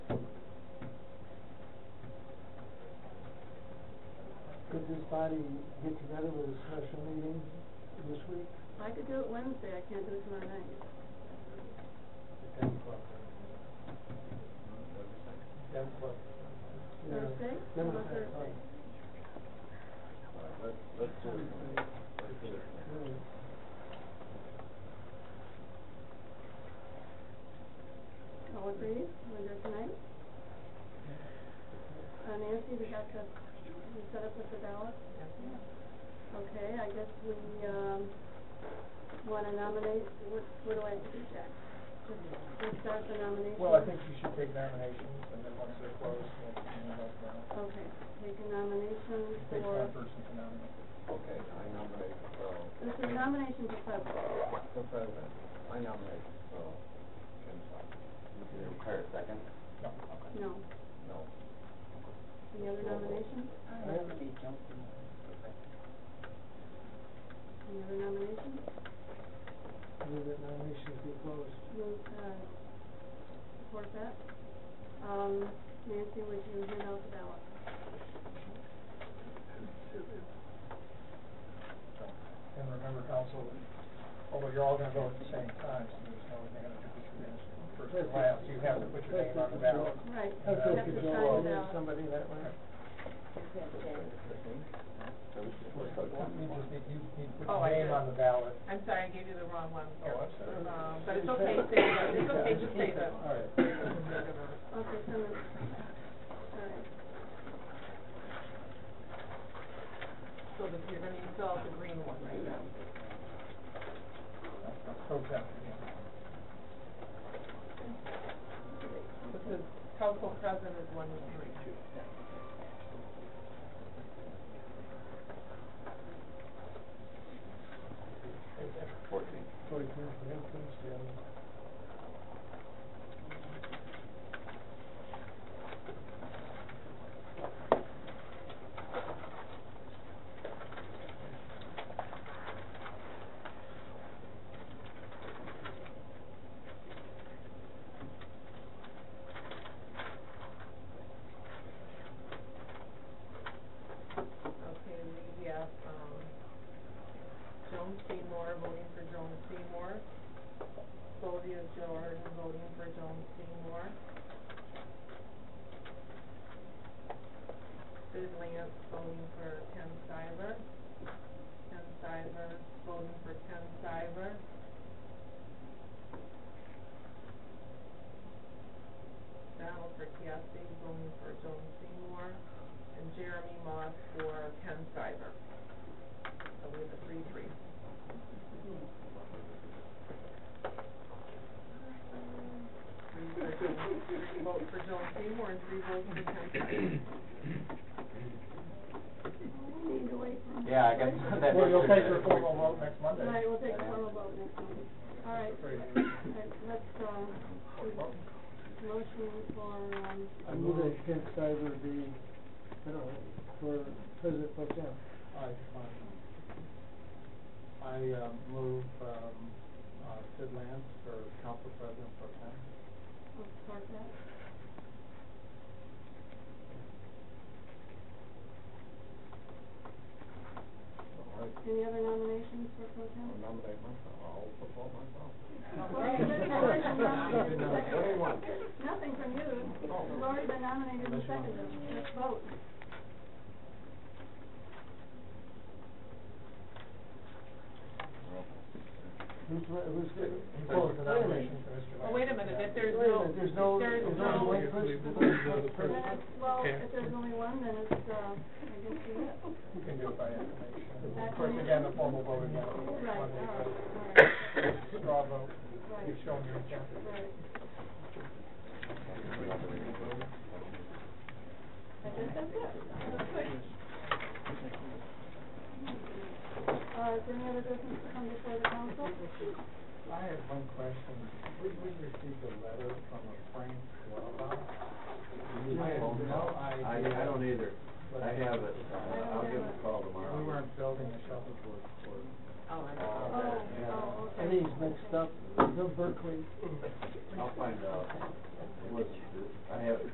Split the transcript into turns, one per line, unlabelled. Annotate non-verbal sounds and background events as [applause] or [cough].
this body get together with a special meeting this week?
I could do it Wednesday, I can't do it tomorrow night.
At Ten o'clock. Ten o'clock. Yeah.
Thursday?
Then it's
How about
ten o'clock.
Thursday?
Let's, let's do it. Let's do it.
Yeah.
All agreed, we'll do it tonight. Uh, Nancy, we have to, we set up with the ballot? Okay, I guess we, um, wanna nominate, what, what do I have to do, Jack? Just, just start the nomination?
Well, I think you should take nominations, and then once they're closed, we'll, we'll let them know.
Okay, take a nomination
Takes
for,
one person to nominate.
Okay, I nominate, uh,
this is nomination for president.
for president, I nominate, uh, Ken Sock.
Require a second?
No,
No,
any other nominations? Any other nominations?
Move that nominations be closed.
Move, uh, support that. Um, Nancy, would you hand out the ballot?
And remember, council, although you're all gonna vote at the same time, so there's no advantage if you finish first or last, you have to put your name on the ballot.
Right, you
I feel
have to
control
sign
over
the ballot.
Somebody that way.
That means you need, you need to put
Oh,
your name on the ballot.
I'm sorry, I gave you the wrong one.
Oh, I'm sorry.
Um, But it's okay, say that, it's okay, just say that.
All right.
Okay, so, moved. all right,
So that you're gonna use all the green one right now.
Pro temp, yeah.
This is council president is one of three.
Fourteen.
Forty two, yeah, please, yeah.
Okay, we have, um, Joan Seymour voting for Joan Seymour. Sylvia Jordan voting for Joan Seymour. Sid Lance voting for Ken Stiver. Ken Stiver voting for Ken Stiver. Donald Rickiasi voting for Joan Seymour and Jeremy Moss for Ken Stiver. So we have a three-three. Three for Joan, three votes for Joan Seymour and three votes for Ken Stiver.
we need to wait for.
Yeah, I guess that.
Well, you'll take your formal vote next Monday.
All right, we'll take a formal vote next time. All right, all right, let's, uh, do motion for, um,
I move that Ken Stiver be, I don't know, for president pro temp.
I, um, I um, move, um, uh, Sid Lance for council president pro temp.
I'll support that.
all right,
Any other nominations for pro
I'll
temp?
nominate myself, I'll support myself.
Well, you didn't already nominate the
Anyone?
second. Nothing from you, you've already been nominated and seconded, let's vote.
Who's, who's,
You
who's
close the
wait a
nomination
minute.
for Mr. Lance.
Oh, wait a minute, if there's
Wait a
no,
minute,
if
there's no,
there's
there's only
no,
one person.
Then it's, well, if there's only one, then it's, uh, I guess you have.
You can do it by acclamation.
That's
Of course,
right.
again, the formal vote again.
Right, all right, all right.
Monday, [laughs] straw vote,
Right,
you've shown your intent.
right. [laughs] I
[laughs]
guess that's it. Uh, is there any other business to come before the council?
I have one question. We, we received a letter from a Frank Wellbach.
You need a phone call. I, I don't either, I have it,
Oh,
Oh,